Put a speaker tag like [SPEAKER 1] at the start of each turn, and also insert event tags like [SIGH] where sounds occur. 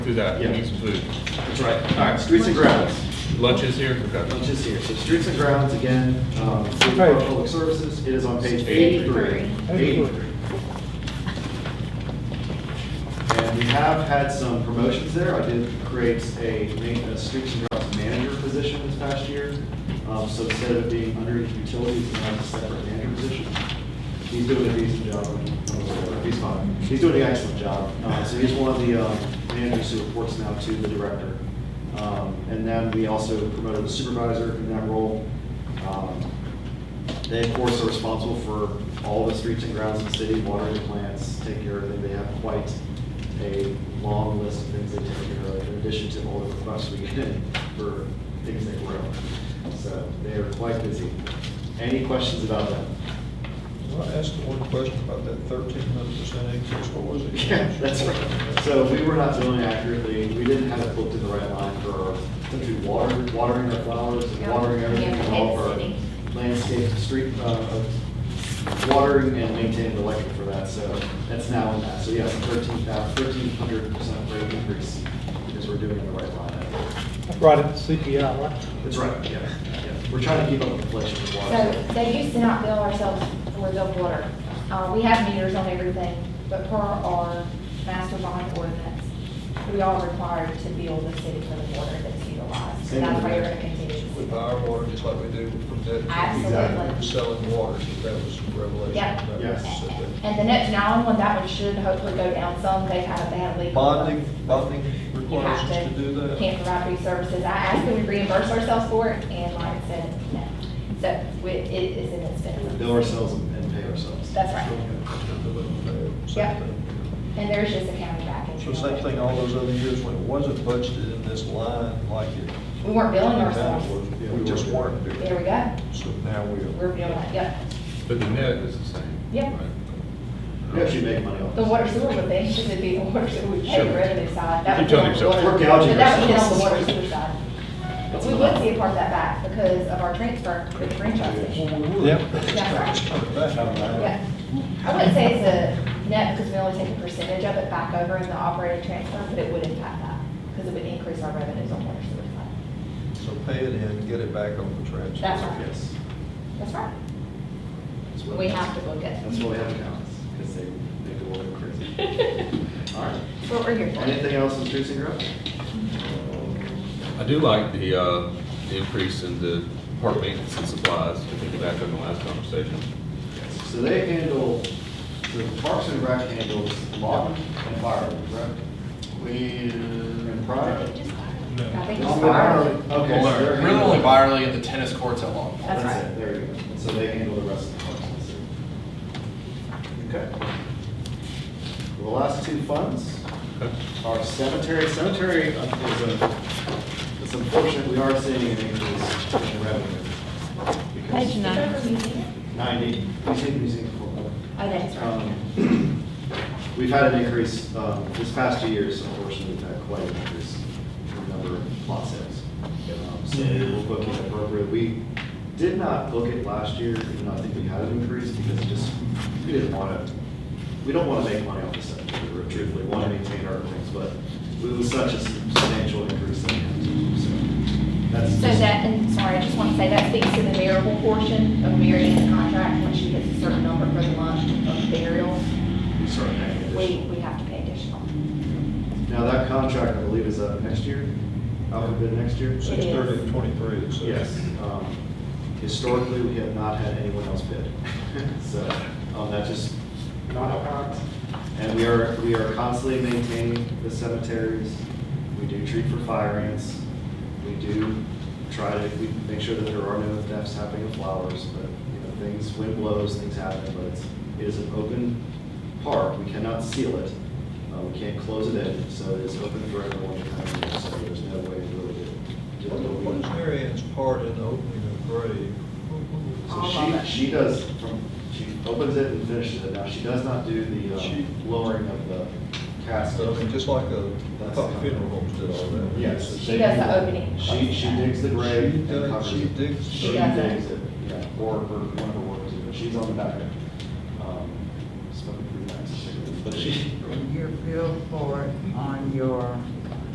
[SPEAKER 1] Do that,
[SPEAKER 2] Yeah.
[SPEAKER 1] we need some food.
[SPEAKER 2] That's right. All right, streets and grounds.
[SPEAKER 1] Lunch is here, okay.
[SPEAKER 2] Lunch is here. So streets and grounds, again, um, City
[SPEAKER 3] Page.
[SPEAKER 2] Park Public Services, it is on page
[SPEAKER 1] Eighty-three.
[SPEAKER 2] eighty-three.
[SPEAKER 3] Eighty-three.
[SPEAKER 2] And we have had some promotions there. I did create a ma- a streets and grounds manager position this past year. Um, So instead of it being under utilities, it's now a separate manager position. He's doing a decent job. Uh, He's fine. He's doing an excellent job. Uh, So he's one of the um, managers who reports now to the director. Um, And then we also promoted a supervisor in that role. Um, they, of course, are responsible for all the streets and grounds in the city, watering the plants, take care of everything. They have quite a long list of things they take care of, in addition to all the requests we get [LAUGHS] in for things they grow. So they are quite busy. Any questions about that?
[SPEAKER 4] Can I ask one question about that thirteen hundred percent increase? What was it?
[SPEAKER 2] Yeah, that's right. So we were not doing accurately, we didn't have it booked in the right line for our, to water, watering our flowers, and watering everything, and all of our landscape, street, uh, uh, watering and maintaining the electric for that, so that's now in that. So yes, thirteen thousand, thirteen hundred percent rate increase, because we're doing it in the right line.
[SPEAKER 3] I brought it to CPI, right?
[SPEAKER 2] That's right, yeah, yeah. We're trying to keep up with inflation with water.
[SPEAKER 5] So they used to not bill ourselves for the water. Uh, we have meters on everything, but per our master bond ordinance, we are required to bill the city for the water that's utilized. So that's why you're gonna continue
[SPEAKER 4] We
[SPEAKER 5] to see.
[SPEAKER 4] buy our water just like we do from that.
[SPEAKER 5] Absolutely.
[SPEAKER 4] Selling water, so that was a revelation.
[SPEAKER 5] Yeah.
[SPEAKER 4] That was-
[SPEAKER 2] Yes.
[SPEAKER 5] And the next nine one, that one should hopefully go down some. They had, they had a leak.
[SPEAKER 4] Bonding, bonding
[SPEAKER 5] You
[SPEAKER 4] requires
[SPEAKER 5] have
[SPEAKER 4] us to do
[SPEAKER 5] to,
[SPEAKER 4] that?
[SPEAKER 5] can't provide free services. I asked that we reimburse ourselves for it and like I said, no. So we- it is an
[SPEAKER 2] We
[SPEAKER 5] expense.
[SPEAKER 2] bill ourselves and pay ourselves.
[SPEAKER 5] That's right. Yeah.
[SPEAKER 4] Same thing.
[SPEAKER 5] And there's just a county back. in
[SPEAKER 4] So same thing all those other years when it wasn't budgeted in this line like it.
[SPEAKER 5] We weren't billing
[SPEAKER 4] now
[SPEAKER 5] ourselves.
[SPEAKER 4] was. We just weren't doing
[SPEAKER 5] There we
[SPEAKER 4] it.
[SPEAKER 5] go.
[SPEAKER 4] So now we are.
[SPEAKER 5] We're doing that, yep.
[SPEAKER 1] But the net is the same.
[SPEAKER 5] Yeah.
[SPEAKER 1] right?
[SPEAKER 2] We actually make money off
[SPEAKER 5] The
[SPEAKER 2] this.
[SPEAKER 5] water sewer would be, should it be the water sewer, we pay the
[SPEAKER 1] Sure.
[SPEAKER 5] revenue side.
[SPEAKER 1] You're
[SPEAKER 5] That
[SPEAKER 1] telling
[SPEAKER 5] would be on the
[SPEAKER 1] yourself.
[SPEAKER 5] water-
[SPEAKER 2] We're gouging
[SPEAKER 5] But that would be on the
[SPEAKER 2] ourselves.
[SPEAKER 5] water sewer side. But we would see a part of that back because of our transfer, with the franchise issue.
[SPEAKER 4] Yep.
[SPEAKER 5] That's right. Yeah.
[SPEAKER 4] Yeah.
[SPEAKER 5] I wouldn't say it's a net because we only take a percentage of it back over in the operating transfer, but it would impact that because it would increase our revenues on water sewer side.
[SPEAKER 4] So pay it in, get it back on the transfer.
[SPEAKER 5] That's right.
[SPEAKER 2] Yes.
[SPEAKER 5] That's right.
[SPEAKER 2] That's what-
[SPEAKER 5] We have to book it.
[SPEAKER 2] That's why we have accountants, because they make the world go crazy. [LAUGHS]
[SPEAKER 5] [LAUGHS]
[SPEAKER 2] All right.
[SPEAKER 5] That's what we're here for.
[SPEAKER 2] Anything else in streets and grounds?
[SPEAKER 1] I do like the, uh, the increase in the park maintenance and supplies, I think back on the last conversation.
[SPEAKER 2] So they handle, so the Parks and Rec handles logging and firewood, correct? We. And pride?
[SPEAKER 5] I think it's
[SPEAKER 2] Only
[SPEAKER 5] fire.
[SPEAKER 2] Byerly. Okay. so they're
[SPEAKER 6] Really only
[SPEAKER 2] handling-
[SPEAKER 6] Byerly and the tennis courts at Longmont.
[SPEAKER 5] That's
[SPEAKER 2] That's
[SPEAKER 5] right.
[SPEAKER 2] it, there you go. And so they handle the rest of the parks. and stuff. Okay. The last two funds
[SPEAKER 1] Okay.
[SPEAKER 2] are cemetery, cemetery uh, is a, it's unfortunate, we are seeing an increase in revenue. because-
[SPEAKER 7] Page nine.
[SPEAKER 5] It's over museum.
[SPEAKER 2] 90, we take museum for-
[SPEAKER 5] Oh, that's right.
[SPEAKER 2] um, [CLEARS THROAT] We've had an increase, um, this past two years, unfortunately, we've had quite an increase in the number of lot sales. Um, So we'll book it appropriate. We did not book it last year, even though I think we had an increase, because it just, we didn't want to, we don't want to make money off this, we truthfully want to maintain our things, but it was such a substantial increase that we had to do, so. that's
[SPEAKER 5] So
[SPEAKER 2] just-
[SPEAKER 5] that, and sorry, I just want to say, that speaks to the variable portion of Mary Ann's contract, when she hits a certain number for the month of burial,
[SPEAKER 2] We started paying additional.
[SPEAKER 5] we, we have to pay additional.
[SPEAKER 2] Now, that contract, I believe, is up next year, up a bid next year?
[SPEAKER 4] Six thirty and twenty-three, it says.
[SPEAKER 2] Yes. Um, Historically, we have not had anyone else bid. [LAUGHS] So um, that just not how it works. And we are, we are constantly maintaining the cemeteries. We do treat for fire ants. We do try to, we make sure that there are no thefts happening of flowers, but, you know, things, wind blows, things happen, but it's, it is an open park. We cannot seal it. Uh, We can't close it in, so it is open for everyone to come in, so there's no way to really do it.
[SPEAKER 4] What is Mary Ann's part in the opening of the grave?
[SPEAKER 2] So she, she does, from, she opens it and finishes it. Now, she does not do the
[SPEAKER 4] She-
[SPEAKER 2] um, lowering of the casket.
[SPEAKER 4] So, I mean, just like the, I thought the funeral homes did all that.
[SPEAKER 2] Yes.
[SPEAKER 5] She does the opening.
[SPEAKER 2] She, she digs the grave
[SPEAKER 4] She
[SPEAKER 2] and
[SPEAKER 4] does,
[SPEAKER 2] covers
[SPEAKER 4] she
[SPEAKER 2] it.
[SPEAKER 4] digs.
[SPEAKER 2] She
[SPEAKER 5] does it.
[SPEAKER 2] digs it, yeah, or her- one of her workers, but she's on the back end. Um, smoking pretty nice cigarettes, But she,
[SPEAKER 8] Your billboard on your